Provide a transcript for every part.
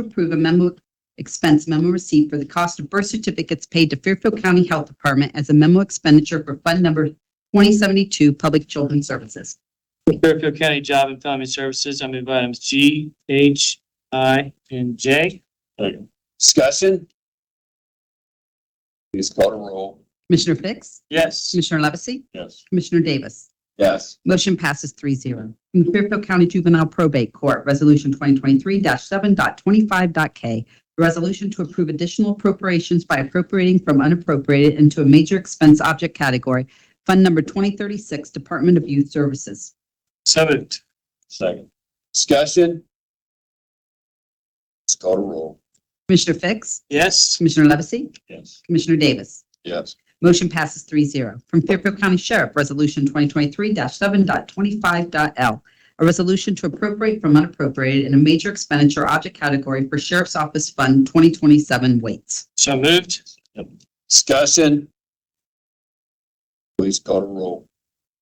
approve a memo expense memo receipt for the cost of birth certificates paid to Fairfield County Health Department as a memo expenditure for Fund Number 2072 Public Children's Services. Fairfield County Job and Family Services, I move items G, H, I, and J. Discussion? Please call the roll. Commissioner Fix? Yes. Commissioner Levesey? Yes. Commissioner Davis? Yes. Motion passes three zero. From the Fairfield County Juvenile Probate Court, Resolution 2023-7.25.k. A resolution to approve additional appropriations by appropriating from unappropriated into a major expense object category, Fund Number 2036, Department of Youth Services. So moved. Second. Discussion? Please call the roll. Commissioner Fix? Yes. Commissioner Levesey? Yes. Commissioner Davis? Yes. Motion passes three zero. From Fairfield County Sheriff, Resolution 2023-7.25.l. A resolution to appropriate from unappropriated in a major expenditure object category for Sheriff's Office Fund 2027 weights. So moved. Discussion? Please call the roll.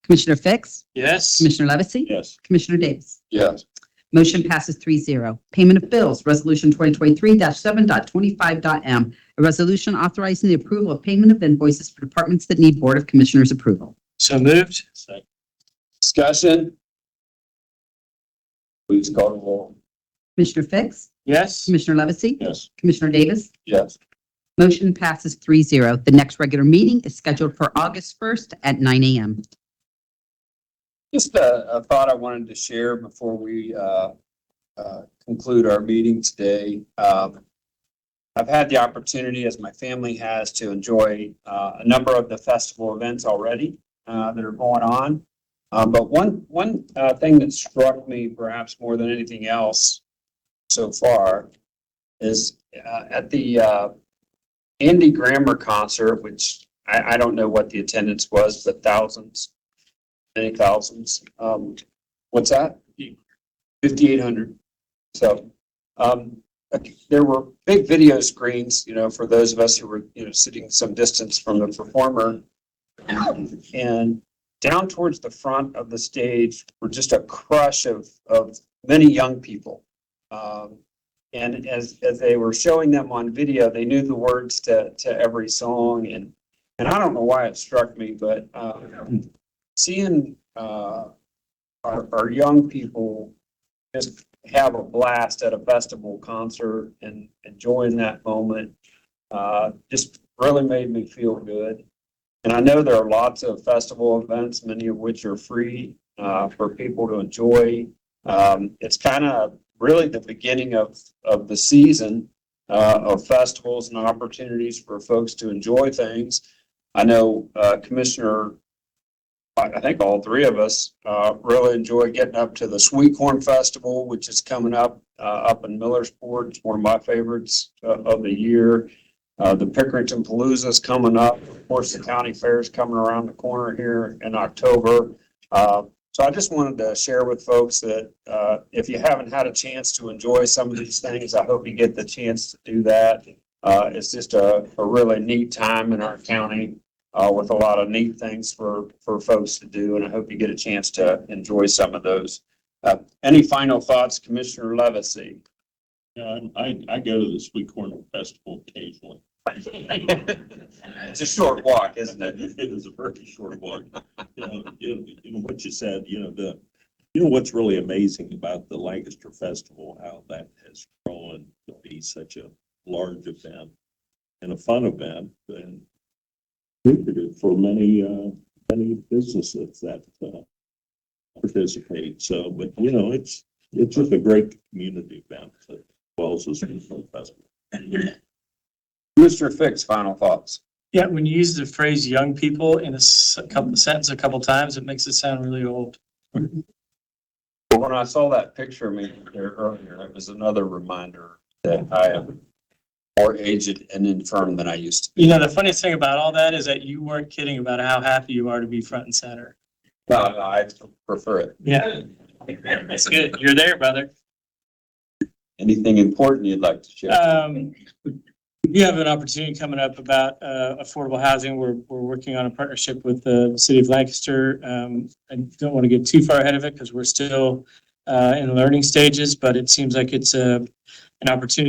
Commissioner Fix? Yes. Commissioner Levesey? Yes. Commissioner Davis? Yes. Motion passes three zero. Payment of bills, Resolution 2023-7.25.m. A resolution authorizing the approval of payment of invoices for departments that need Board of Commissioners approval. So moved. Second. Discussion? Please call the roll. Commissioner Fix? Yes. Commissioner Levesey? Yes. Commissioner Davis? Yes. Motion passes three zero. The next regular meeting is scheduled for August 1st at nine AM. Just a, a thought I wanted to share before we, uh, uh, conclude our meeting today. Um, I've had the opportunity, as my family has, to enjoy, uh, a number of the festival events already, uh, that are going on. Uh, but one, one, uh, thing that struck me perhaps more than anything else so far is, uh, at the, uh, Andy Grammer concert, which I, I don't know what the attendance was, but thousands many thousands. Um, what's that? Fifty-eight hundred. So, um, there were big video screens, you know, for those of us who were, you know, sitting some distance from the performer. And down towards the front of the stage were just a crush of, of many young people. Um, and as, as they were showing them on video, they knew the words to, to every song and, and I don't know why it struck me, but, um, seeing uh, our, our young people just have a blast at a festival concert and enjoying that moment uh, just really made me feel good. And I know there are lots of festival events, many of which are free uh, for people to enjoy. Um, it's kind of really the beginning of, of the season uh, of festivals and opportunities for folks to enjoy things. I know uh, Commissioner I, I think all three of us, uh, really enjoy getting up to the Sweet Corn Festival, which is coming up, uh, up in Millersport. It's one of my favorites uh, of the year. Uh, the Pickerington Palooza's coming up. Of course, the county fair's coming around the corner here in October. Uh, so I just wanted to share with folks that, uh, if you haven't had a chance to enjoy some of these things, I hope you get the chance to do that. Uh, it's just a, a really neat time in our county uh, with a lot of neat things for, for folks to do, and I hope you get a chance to enjoy some of those. Uh, any final thoughts, Commissioner Levesey? Yeah, I, I- I go to the Sweet Corn Festival occasionally. It's a short walk, isn't it? It is a very short walk. You know, you- you know, what you said, you know, the, you know, what's really amazing about the Lancaster Festival, how that has grown to be such a large event and a fun event and lucrative for many, uh, many businesses that, uh, participate. So, but you know, it's, it's just a great community event as well as the Sweet Corn Festival. Mr. Fix, final thoughts? Yeah, when you use the phrase young people in a s- a couple sentence a couple times, it makes it sound really old. When I saw that picture of me there earlier, it was another reminder that I am more aged and infirm than I used to be. You know, the funniest thing about all that is that you weren't kidding about how happy you are to be front and center. No, no, I prefer it. Yeah. That's good. You're there, brother. Anything important you'd like to share? Um, you have an opportunity coming up about, uh, affordable housing. We're, we're working on a partnership with the city of Lancaster. Um, I don't want to get too far ahead of it because we're still, uh, in learning stages, but it seems like it's a, uh, an opportunity